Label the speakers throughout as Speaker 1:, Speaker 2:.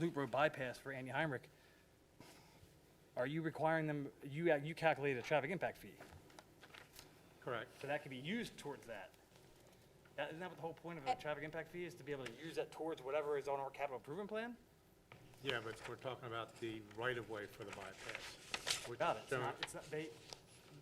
Speaker 1: loop road bypass for Andy Heinrich, are you requiring them, you, uh, you calculated a traffic impact fee,
Speaker 2: Correct.
Speaker 1: so that could be used towards that. That, isn't that what the whole point of a traffic impact fee is, to be able to use that towards whatever is on our capital improvement plan?
Speaker 2: Yeah, but we're talking about the right-of-way for the bypass. which
Speaker 1: Got it,
Speaker 2: is
Speaker 1: it's not,
Speaker 2: shown-
Speaker 1: it's not, they,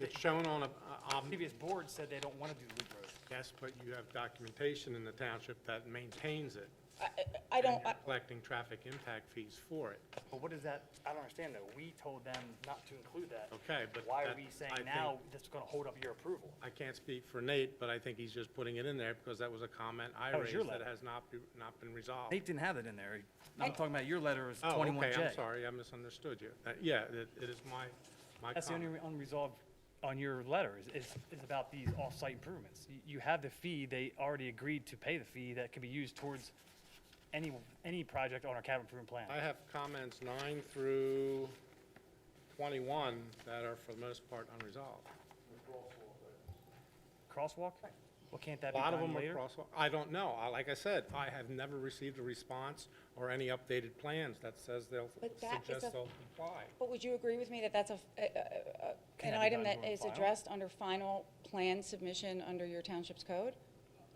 Speaker 2: It's shown on a, um,
Speaker 1: previous board said they don't wanna do the loop road.
Speaker 2: yes, but you have documentation in the township that maintains it.
Speaker 3: I- I I
Speaker 2: and
Speaker 3: don't,
Speaker 2: you're Collecting traffic impact fees for it.
Speaker 1: But what is that, I don't understand though, we told them not to include that.
Speaker 2: Okay, but
Speaker 1: Why are
Speaker 2: that-
Speaker 1: we
Speaker 2: I
Speaker 1: saying
Speaker 2: think-
Speaker 1: now that's gonna hold up your approval?
Speaker 2: I can't speak for Nate, but I think he's just putting it in there because that was a comment I
Speaker 1: That was your
Speaker 2: raised that
Speaker 1: letter.
Speaker 2: has not, be- not been resolved.
Speaker 1: Nate didn't have it in there, I'm talking about your letter is
Speaker 2: Oh,
Speaker 1: twenty-one
Speaker 2: okay,
Speaker 1: J.
Speaker 2: I'm sorry, I misunderstood you. Uh, Yeah, it it is my, my
Speaker 1: That's the only
Speaker 2: comment.
Speaker 1: re- unresolved on your letter is, is, is about these off-site improvements. You, you have the fee, they already agreed to pay the fee that can be used towards any, any project on our capital improvement
Speaker 2: I
Speaker 1: plan.
Speaker 2: have comments nine through 21 that are for the most part unresolved.
Speaker 1: Crosswalk? Well, can't that
Speaker 2: A
Speaker 1: be
Speaker 2: lot of
Speaker 1: done
Speaker 2: them are
Speaker 1: later?
Speaker 2: crosswalk, I don't know. I- Like I said, I have never received a response or any updated plans that says they'll,
Speaker 3: But that is
Speaker 2: suggest
Speaker 3: a-
Speaker 2: they'll comply.
Speaker 3: but would you agree with me that that's a, a- a- a-
Speaker 1: Can
Speaker 3: an
Speaker 1: that be
Speaker 3: item
Speaker 1: done
Speaker 3: that
Speaker 1: during
Speaker 3: is
Speaker 1: final?
Speaker 3: addressed under final plan submission under your township's code?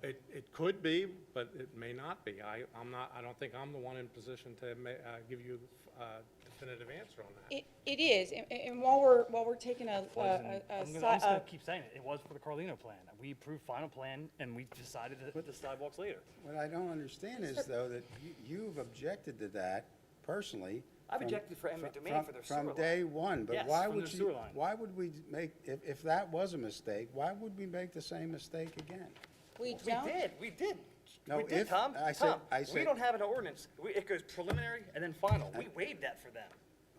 Speaker 2: It, it could be, but it may not be. I, I'm not, I don't think I'm the one in position to ma, uh, give you a definitive answer on that.
Speaker 3: It, it is, and, and while we're, while we're taking a, a,
Speaker 1: was in-
Speaker 3: a- a
Speaker 1: I'm
Speaker 3: si-
Speaker 1: gonna- I'm just gonna
Speaker 3: a,
Speaker 1: keep saying it, it was for the Carlino plan. We approved final plan and we decided to put the sidewalks later.
Speaker 4: What I don't understand is, though, that you- you've objected to that personally.
Speaker 1: I've
Speaker 4: from-
Speaker 1: objected for eminent
Speaker 4: fr-
Speaker 1: domain
Speaker 4: from-
Speaker 1: for their sewer line.
Speaker 4: From day one, but
Speaker 1: Yes,
Speaker 4: why
Speaker 1: from
Speaker 4: would
Speaker 1: their
Speaker 4: you?
Speaker 1: sewer line.
Speaker 4: Why would we make, if, if that was a mistake, why would we make the same mistake again?
Speaker 3: we
Speaker 1: We
Speaker 3: don't,
Speaker 1: did, we did.
Speaker 4: No,
Speaker 1: We did,
Speaker 4: if-
Speaker 1: Tom,
Speaker 4: I said-
Speaker 1: Tom,
Speaker 4: I
Speaker 1: we
Speaker 4: said-
Speaker 1: don't have an ordinance. We- It goes preliminary and then final. We waived that for them.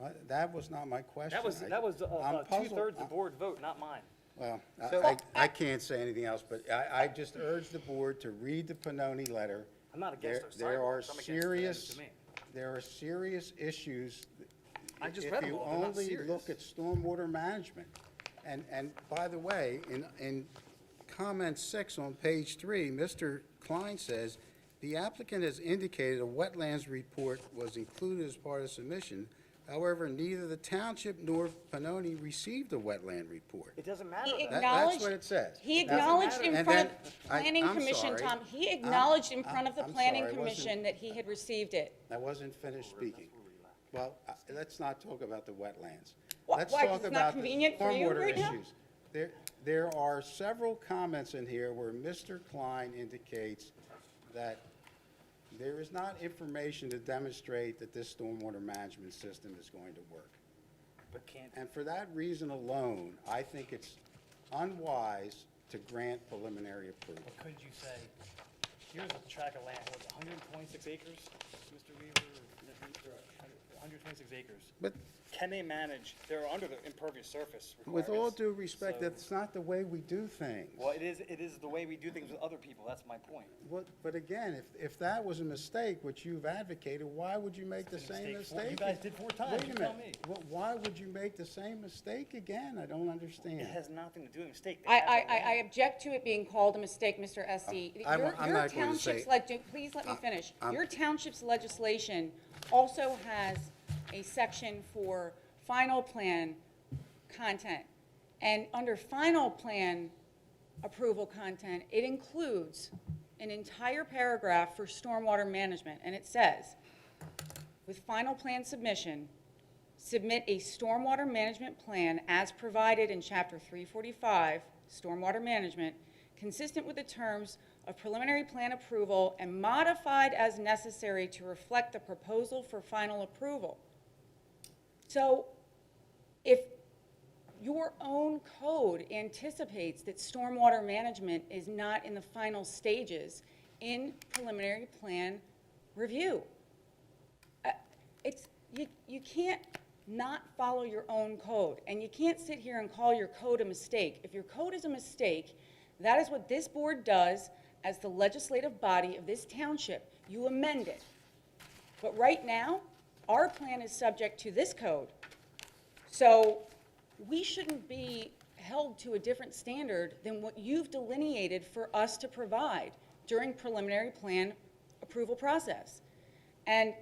Speaker 4: Uh, That was not my question.
Speaker 1: That was,
Speaker 4: I-
Speaker 1: that was uh,
Speaker 4: I'm
Speaker 1: uh,
Speaker 4: puzzled.
Speaker 1: two-thirds
Speaker 4: I-
Speaker 1: the board vote, not mine.
Speaker 4: Well, I-
Speaker 1: So-
Speaker 4: I, I can't say anything else, but I, I just urge the board to read the Pannoni letter.
Speaker 1: I'm not against
Speaker 4: There-
Speaker 1: those sidewalks. I'm against the
Speaker 4: There are
Speaker 1: eminent
Speaker 4: serious,
Speaker 1: domain.
Speaker 4: there are serious issues.
Speaker 1: I just read them all. They're not
Speaker 4: If you only look at
Speaker 1: serious.
Speaker 4: stormwater management, and, and by the way, in, in comment six on page three, Mr. Klein says, "The applicant has indicated a wetlands report was included as part of submission. However, neither the township nor Pannoni received a wetland report."
Speaker 1: It doesn't matter
Speaker 3: he
Speaker 1: though.
Speaker 4: That- that's
Speaker 3: acknowledged.
Speaker 4: what it says.
Speaker 3: He
Speaker 4: It doesn't
Speaker 3: acknowledged
Speaker 4: matter.
Speaker 3: in
Speaker 4: And
Speaker 3: front
Speaker 4: then-
Speaker 3: of
Speaker 4: I-
Speaker 3: planning
Speaker 4: I'm
Speaker 3: commission,
Speaker 4: sorry.
Speaker 3: Tom, he
Speaker 4: I'm-
Speaker 3: acknowledged in
Speaker 4: I'm-
Speaker 3: front of the
Speaker 4: I'm
Speaker 3: planning
Speaker 4: sorry, I wasn't-
Speaker 3: commission that he had received it.
Speaker 4: I wasn't finished speaking. Well, I- let's not talk about the wetlands.
Speaker 3: Why-
Speaker 4: Let's
Speaker 3: why, 'cause
Speaker 4: talk
Speaker 3: it's not
Speaker 4: about the
Speaker 3: convenient for you
Speaker 4: stormwater
Speaker 3: right now?
Speaker 4: issues. There, there are several comments in here where Mr. Klein indicates that there is not information to demonstrate that this stormwater management system is going to work.
Speaker 1: But can't,
Speaker 4: And for that reason alone, I think it's unwise to grant preliminary approval.
Speaker 1: but could you say, here's a tract of land, what's hundred and twenty-six acres, Mr. Weaver? Hundred and twenty-six acres.
Speaker 4: But
Speaker 1: Can they manage, they're under the impervious surface requirements.
Speaker 4: with all due respect,
Speaker 1: so-
Speaker 4: that's not the way we do things.
Speaker 1: Well, it is, it is the way we do things with other people, that's my point.
Speaker 4: What, but again, if, if that was a mistake, which you've advocated, why would you make the
Speaker 1: It's been a
Speaker 4: same
Speaker 1: mistake four-
Speaker 4: mistake?
Speaker 1: you guys did four times,
Speaker 4: Wait
Speaker 1: you
Speaker 4: a
Speaker 1: tell
Speaker 4: minute, Wh- why would you make the same mistake again? I don't understand.
Speaker 1: It has nothing to do with mistake. They
Speaker 3: I,
Speaker 1: have the
Speaker 3: I, I- I
Speaker 1: land.
Speaker 3: object to it being called a mistake, Mr. Esty.
Speaker 4: I wa-
Speaker 3: Your-
Speaker 4: I'm
Speaker 3: your
Speaker 4: not going to say-
Speaker 3: township's leg- Please let me finish.
Speaker 4: I'm-
Speaker 3: Your township's legislation also has a section for final plan content. And under final plan approval content, it includes an entire paragraph for stormwater management. And it says, with final plan submission, submit a stormwater management plan as provided in Chapter 345, Stormwater Management, consistent with the terms of preliminary plan approval and modified as necessary to reflect the proposal for final approval. So if your own code anticipates that stormwater management is not in the final stages in preliminary plan review, uh, it's, you, you can't not follow your own code, and you can't sit here and call your code a mistake. If your code is a mistake, that is what this board does as the legislative body of this township. You amend it. But right now, our plan is subject to this code. So we shouldn't be held to a different standard than what you've delineated for us to provide during preliminary plan approval process. And